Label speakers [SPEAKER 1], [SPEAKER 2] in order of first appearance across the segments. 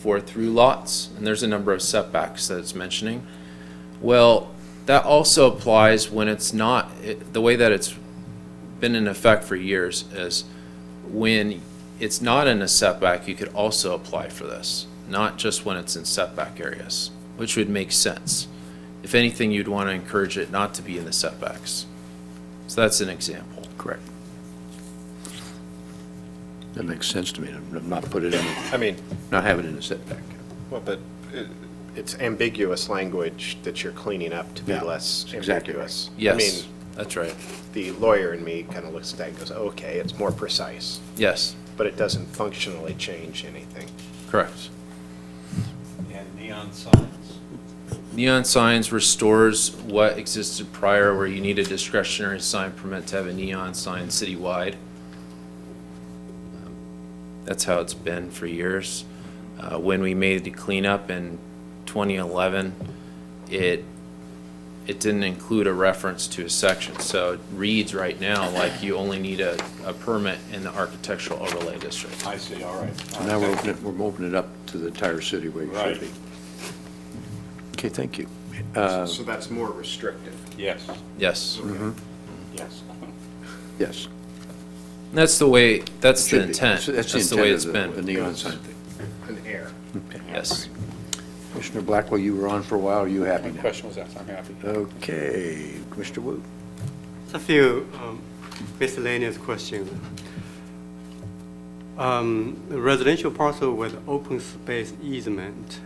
[SPEAKER 1] for through lots, and there's a number of setbacks that it's mentioning. Well, that also applies when it's not, it- the way that it's been in effect for years is when it's not in a setback, you could also apply for this, not just when it's in setback areas, which would make sense. If anything, you'd want to encourage it not to be in the setbacks. So that's an example.
[SPEAKER 2] Correct. That makes sense to me, to not put it in,
[SPEAKER 3] I mean,
[SPEAKER 2] not have it in a setback.
[SPEAKER 3] well, but it- it's ambiguous language that you're cleaning up to be
[SPEAKER 2] Yeah,
[SPEAKER 3] less
[SPEAKER 2] exactly right.
[SPEAKER 3] ambiguous. I
[SPEAKER 1] Yes,
[SPEAKER 3] mean,
[SPEAKER 1] that's right.
[SPEAKER 3] the lawyer in me kind of looks at that and goes, okay, it's more precise,
[SPEAKER 1] Yes,
[SPEAKER 3] but it doesn't functionally change anything.
[SPEAKER 1] correct.
[SPEAKER 4] and neon signs.
[SPEAKER 1] Neon signs restores what existed prior where you need a discretionary sign permit to have a neon sign citywide. That's how it's been for years. Uh, when we made the cleanup in twenty eleven, it, it didn't include a reference to a section. So it reads right now like you only need a, a permit in the architectural overlay district.
[SPEAKER 4] I see, all right. all
[SPEAKER 2] And Now
[SPEAKER 4] right,
[SPEAKER 2] we're
[SPEAKER 4] thank
[SPEAKER 2] opening,
[SPEAKER 4] you.
[SPEAKER 2] it- we're opening it up to the entire city where it should
[SPEAKER 4] Right.
[SPEAKER 2] be. Okay, thank you. Uh,
[SPEAKER 3] So that's more restrictive.
[SPEAKER 4] Yes,
[SPEAKER 1] Yes.
[SPEAKER 2] Mm-hmm.
[SPEAKER 4] yes.
[SPEAKER 2] Yes.
[SPEAKER 1] That's the way, that's
[SPEAKER 2] Should
[SPEAKER 1] the
[SPEAKER 2] be.
[SPEAKER 1] intent.
[SPEAKER 2] That's the
[SPEAKER 1] way
[SPEAKER 2] intent
[SPEAKER 1] it's
[SPEAKER 2] of
[SPEAKER 1] been.
[SPEAKER 2] the- The neon sign thing.
[SPEAKER 3] An air.
[SPEAKER 1] Yes.
[SPEAKER 2] Commissioner Blackwell, you were on for a while, are you happy now?
[SPEAKER 4] Question was asked, I'm happy.
[SPEAKER 2] Okay, Commissioner Wu?
[SPEAKER 5] Just A few um, miscellaneous questions. Um, Residential parcel with open space easement.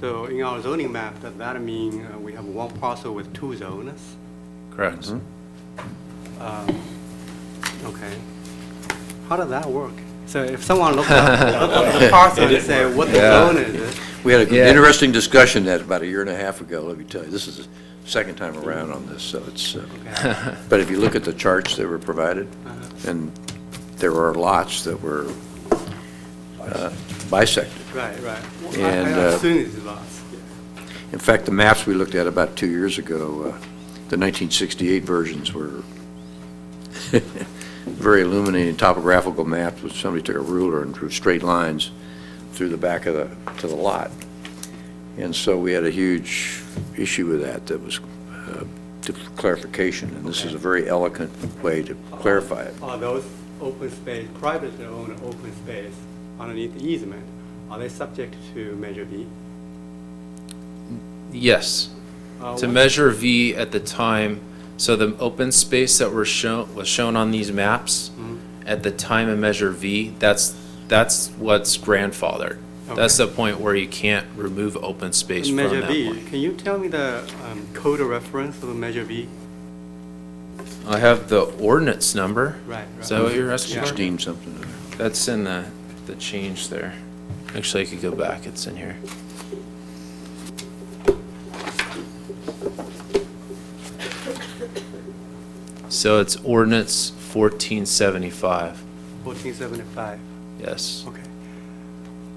[SPEAKER 5] So in our zoning map, does that mean uh, we have one parcel with two zones?
[SPEAKER 1] Correct.
[SPEAKER 5] Okay. How does that work? So if someone looks up looks up the parcel and say, what the zone is it?
[SPEAKER 2] We had an
[SPEAKER 1] Yeah.
[SPEAKER 2] interesting discussion that about a year and a half ago, let me tell you. This is the second time around on this, so it's, uh,
[SPEAKER 5] Okay.
[SPEAKER 2] but if you look at the charts that were provided, and there are lots that were uh, bisected.
[SPEAKER 5] Right, right. Well, I-
[SPEAKER 2] And,
[SPEAKER 5] I
[SPEAKER 2] uh,
[SPEAKER 5] assume it's lots.
[SPEAKER 2] In fact, the maps we looked at about two years ago, uh, the 1968 versions were very illuminating topographical maps, which somebody took a ruler and drew straight lines through the back of the, to the lot. And so we had a huge issue with that, that was uh, to clarification, and this is a very elegant way to clarify it.
[SPEAKER 5] Are those open space, privately owned open space underneath the easement, are they subject to Measure B?
[SPEAKER 1] Yes.
[SPEAKER 5] Uh,
[SPEAKER 1] To
[SPEAKER 5] what-
[SPEAKER 1] measure V at the time, so the open space that were shown, was shown on these maps,
[SPEAKER 5] Mm-hmm.
[SPEAKER 1] at the time of measure V, that's, that's what's grandfathered. That's the point where you can't remove open space from
[SPEAKER 5] Measure
[SPEAKER 1] that
[SPEAKER 5] B,
[SPEAKER 1] point.
[SPEAKER 5] can you tell me the um, code of reference of Measure B?
[SPEAKER 1] I have the ordinance number.
[SPEAKER 5] Right,
[SPEAKER 1] Is that what
[SPEAKER 5] right.
[SPEAKER 1] you're asking for?
[SPEAKER 2] 16 something.
[SPEAKER 1] That's in the, the change there. Actually, I could go back, it's in here. So it's ordinance fourteen seventy-five,
[SPEAKER 5] 1475,
[SPEAKER 1] yes.
[SPEAKER 5] okay.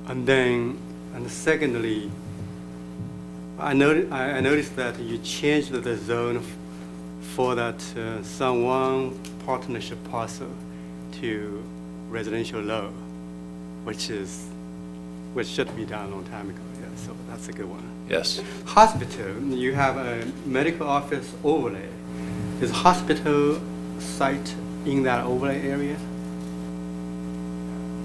[SPEAKER 5] And then, and secondly, I noticed, I I noticed that you changed the zone f- for that uh, San Juan partnership parcel to residential low, which is, which should be done a long time ago, yeah, so that's a good one.
[SPEAKER 1] Yes,
[SPEAKER 5] hospital, you have a medical office overlay. Is hospital site in that overlay area?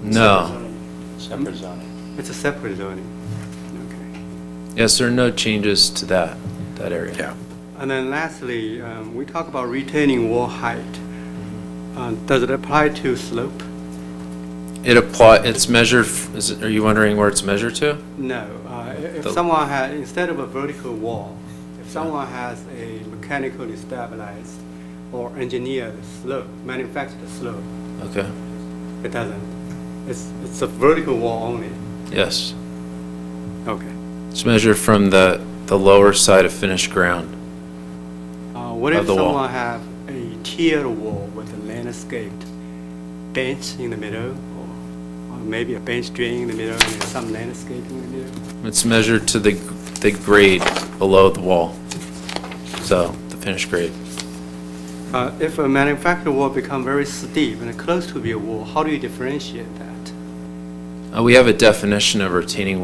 [SPEAKER 1] no,
[SPEAKER 4] Separate zoning.
[SPEAKER 5] It's a separate zoning. Okay.
[SPEAKER 1] yes, there are no changes to that, that area.
[SPEAKER 2] Yeah.
[SPEAKER 5] And then lastly, um, we talk about retaining wall height. Uh, Does it apply to slope?
[SPEAKER 1] It apply, it's measured, f- is, it- are you wondering where it's measured to?
[SPEAKER 5] No. Uh, i- If
[SPEAKER 1] The-
[SPEAKER 5] someone had, instead of a vertical wall, if someone has a mechanically stabilized or engineered slope, manufactured slope,
[SPEAKER 1] Okay,
[SPEAKER 5] it doesn't. It's, it's a vertical wall only.
[SPEAKER 1] yes.
[SPEAKER 5] Okay.
[SPEAKER 1] It's measured from the, the lower side of finished ground.
[SPEAKER 5] Uh, What
[SPEAKER 1] Of
[SPEAKER 5] if
[SPEAKER 1] the wall.
[SPEAKER 5] someone have a tiered wall with a landscaped bench in the middle, or or maybe a bench drain in the middle and some landscape in the middle?
[SPEAKER 1] It's measured to the, the grade below the wall, so the finished grade.
[SPEAKER 5] Uh, If a manufactured wall become very steep and close to be a wall, how do you differentiate that?
[SPEAKER 1] Uh, we have a definition of retaining wall